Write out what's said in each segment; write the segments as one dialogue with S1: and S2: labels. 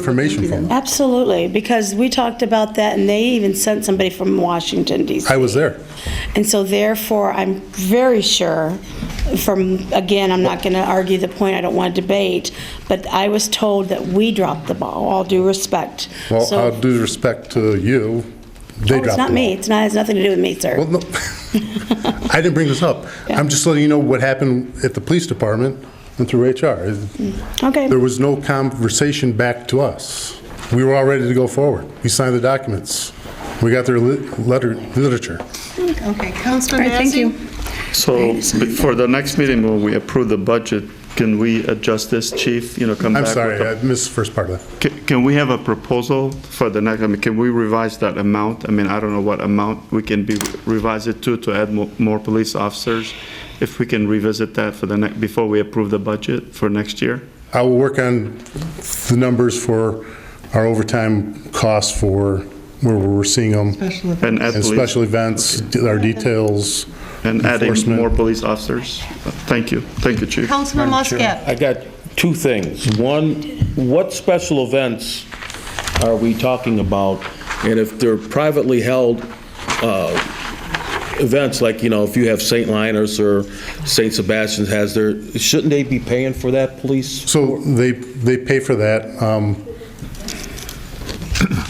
S1: information from them.
S2: Absolutely, because we talked about that, and they even sent somebody from Washington DC.
S1: I was there.
S2: And so therefore, I'm very sure from, again, I'm not going to argue the point, I don't want to debate, but I was told that we dropped the ball, all due respect.
S1: Well,
S2: So-
S1: out of due respect to you,
S2: Oh,
S1: they dropped
S2: It's not
S1: the
S2: me,
S1: ball.
S2: it's not, has nothing to do with me, sir.
S1: Well, no, I didn't bring this up. I'm just letting you know what happened at the police department and through HR.
S2: Okay.
S1: There was no conversation back to us. We were all ready to go forward. We signed the documents. We got their lit- letter, literature.
S3: Okay, Councilman
S4: All right, thank
S3: Massey?
S4: you.
S5: So before the next meeting, when we approve the budget, can we adjust this, chief? You know, come back?
S1: I'm
S5: with
S1: sorry, uh,
S5: a-
S1: I missed the first part of that.
S5: Ca- Can we have a proposal for the next, I mean, can we revise that amount? I mean, I don't know what amount we can be, revise it to, to add mo- more police officers, if we can revisit that for the next, before we approve the budget for next year?
S1: I will work on the numbers for our overtime costs for where we're seeing them.
S3: Special event.
S5: And add
S1: And
S5: police-
S1: special events, our details.
S5: And adding
S1: enforcement.
S5: more police officers? Thank you, thank you, chief.
S3: Councilman Muscat?
S6: I got two things. One, what special events are we talking about? And if they're privately held uh, events, like, you know, if you have St. Linus or St. Sebastian's has their, shouldn't they be paying for that, police?
S1: So they, they pay for that. Um,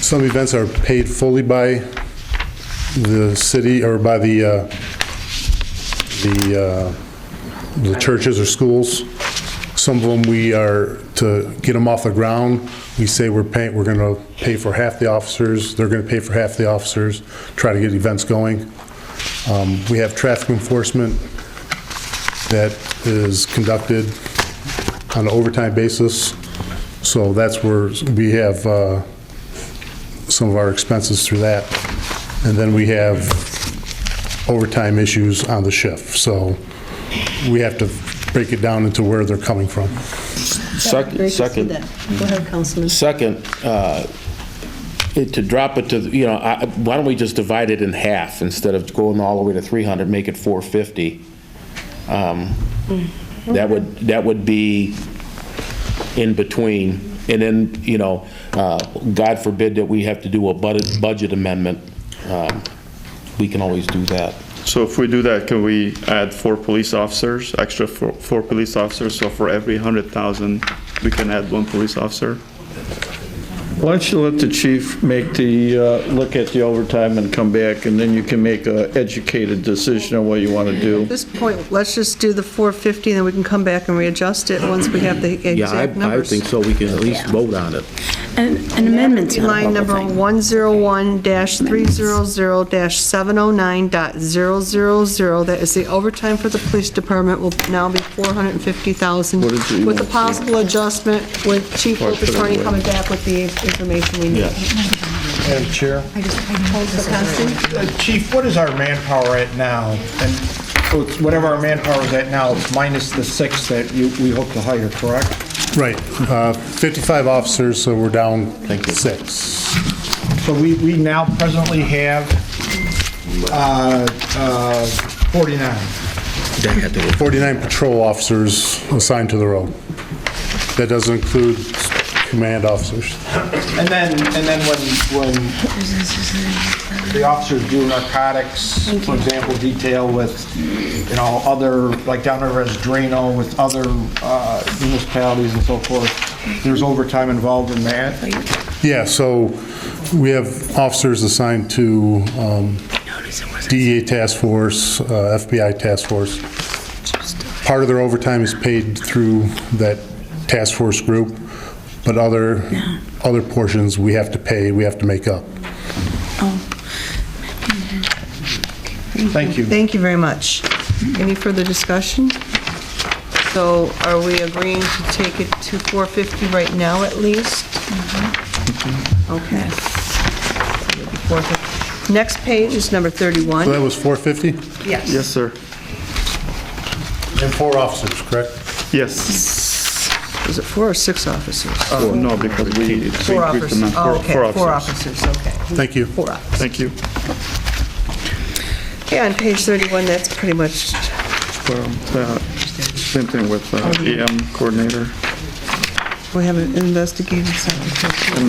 S1: Some events are paid fully by the city or by the, uh, the, uh, the churches or schools. Some of them, we are, to get them off the ground, we say we're paying, we're going to pay for half the officers, they're going to pay for half the officers, try to get events going. Um, We have traffic enforcement that is conducted on an overtime basis. So that's where we have uh, some of our expenses through that. And then we have overtime issues on the shift. So we have to break it down into where they're coming from.
S6: Second, second.
S3: Go ahead, Councilman.
S6: Second, uh, it- to drop it to, you know, I- why don't we just divide it in half instead of going all the way to 300, make it 450? Um, That would, that would be in between. And then, you know, uh, God forbid that we have to do a budget budget amendment, um, we can always do that.
S5: So if we do that, can we add four police officers, extra four, four police officers? So for every 100,000, we can add one police officer?
S7: Why don't you let the chief make the, uh, look at the overtime and come back, and then you can make a educated decision on what you want to
S3: At
S7: do?
S3: this point, let's just do the 450, then we can come back and readjust it once we have the exact numbers.
S6: so, we can at least vote on it.
S2: And and amendments. not a bubble
S3: Line number
S2: thing.
S3: 101-300-709.000, that is the overtime for the police department, will now be 450,000,
S7: What did you
S3: with a
S7: want?
S3: possible adjustment with Chief
S7: Or put it
S3: Attorney
S7: away.
S3: coming back with the information we need.
S8: Madam Chair.
S3: Councilman Constance?
S8: Uh, Chief, what is our manpower at now? And so it's whatever our manpower is at now, it's minus the six that you, we hope to hire, correct?
S1: Right, uh, 55 officers, so we're down six.
S8: So we, we now presently have uh, uh, 49.
S1: 49 patrol officers assigned to the road. That doesn't include command officers.
S8: And then, and then when, when the officers do narcotics, for example, detail with, you know, other, like down there as Drano with other uh, municipalities and so forth, there's overtime involved in that.
S1: Yeah, so we have officers assigned to um, DEA Task Force, uh, FBI Task Force. Part of their overtime is paid through that task force group, but other, other portions we have to pay, we have to make up.
S8: Thank you.
S3: Thank you very much. Any further discussion? So are we agreeing to take it to 450 right now at least? Mm-hmm. Okay. 450. Next page is number
S1: So
S3: 31.
S1: that was 450?
S3: Yes.
S5: Yes, sir.
S1: And four officers, correct?
S5: Yes.
S3: Was it four or six officers?
S5: Oh, no, because we we
S3: Uh,
S5: increased
S3: Four
S5: the
S3: officers.
S5: amount.
S3: Oh, okay, four officers, okay.
S1: Thank you.
S3: Four officers.
S5: Thank you.
S3: Yeah, on page 31, that's pretty much, um,
S5: uh, E Well, that- Same thing with uh, EM coordinator.
S3: We haven't investigated something.